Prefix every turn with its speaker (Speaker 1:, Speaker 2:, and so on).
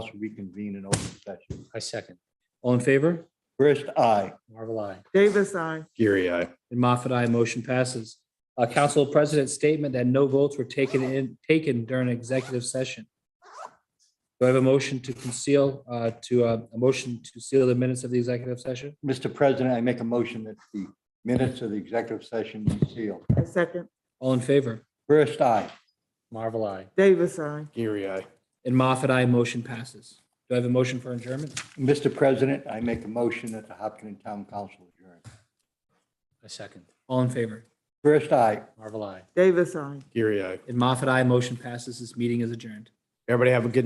Speaker 1: to reconvene in open session.
Speaker 2: I second. All in favor?
Speaker 1: First, I,
Speaker 2: Marvel, I.
Speaker 3: Davis, I.
Speaker 4: Fury, I.
Speaker 2: And Moffat, I, motion passes. Uh, Council President's statement that no votes were taken in, taken during executive session. Do I have a motion to conceal, uh, to, uh, a motion to seal the minutes of the executive session?
Speaker 1: Mr. President, I make a motion that the minutes of the executive session be sealed.
Speaker 3: I second.
Speaker 2: All in favor?
Speaker 1: First, I,
Speaker 2: Marvel, I.
Speaker 3: Davis, I.
Speaker 4: Fury, I.
Speaker 2: And Moffat, I, motion passes. Do I have a motion for adjournment?
Speaker 1: Mr. President, I make a motion that the Hopkinton Town Council adjourn.
Speaker 2: I second. All in favor?
Speaker 1: First, I.
Speaker 2: Marvel, I.
Speaker 3: Davis, I.
Speaker 4: Fury, I.
Speaker 2: And Moffat, I, motion passes. This meeting is adjourned.
Speaker 4: Everybody have a good